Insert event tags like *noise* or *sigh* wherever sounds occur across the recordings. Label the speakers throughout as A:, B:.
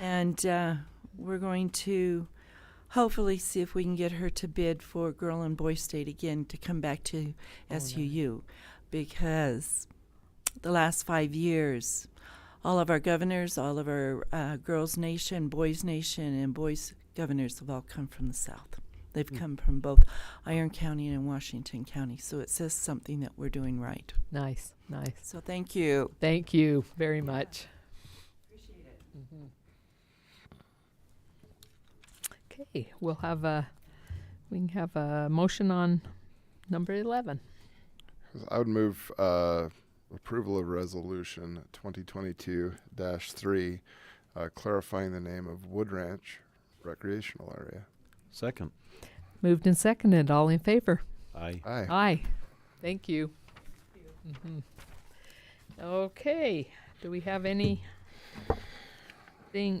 A: And uh, we're going to hopefully see if we can get her to bid for Girl and Boy State again to come back to SUU because the last five years, all of our governors, all of our uh, Girls Nation, Boys Nation, and Boys governors have all come from the South. They've come from both Iron County and Washington County. So it says something that we're doing right.
B: Nice, nice.
A: So thank you.
B: Thank you very much. Mm-hmm. Appreciate it. Okay, we'll have a, we can have a motion on number 11.
C: I would move uh, approval of resolution 2022 3, uh, clarifying the name of Wood Ranch Recreational Area.
D: Second.
B: Moved and seconded, all in favor?
D: Aye.
E: Ah.
C: Aye.
B: Aye. Thank you. Mhm. Okay, do we have anything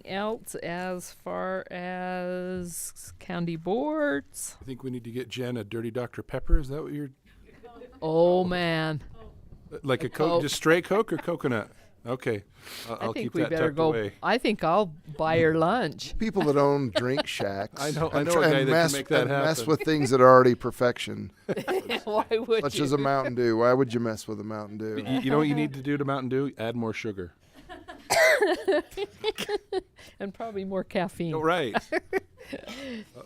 B: else as far as county boards?
E: I think we need to get Jen a dirty Dr. Pepper. Is that what you're
B: Oh, man.
E: like a
B: Coke.
E: coke, just straight Coke or coconut? Okay, I'll,
B: I
E: I'll
B: think
E: keep
B: we
E: that
B: better
E: tucked
B: go.
E: away.
B: *laughs* I think I'll buy her
C: *laughs*
B: lunch. *laughs*
C: People that own
E: *laughs*
C: drink shacks
E: I know- I
C: and
E: know
C: try
E: a
C: and
E: guy that can
C: mess,
E: make that
C: and mess
E: happen.
C: with things that are already
E: *laughs*
C: perfection,
B: Why would
C: such
B: you?
C: as a Mountain Dew. Why would you mess with a Mountain Dew?
E: You, you know what you need to do to Mountain Dew? Add
B: *laughs*
E: more sugar.
B: and probably more caffeine.
E: Oh, right.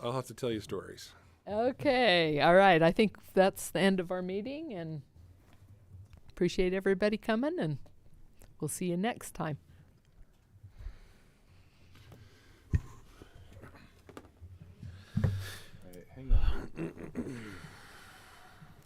E: I'll have to tell you stories.
B: Okay. All right. I think that's the end of our meeting and appreciate everybody coming and we'll see you next time.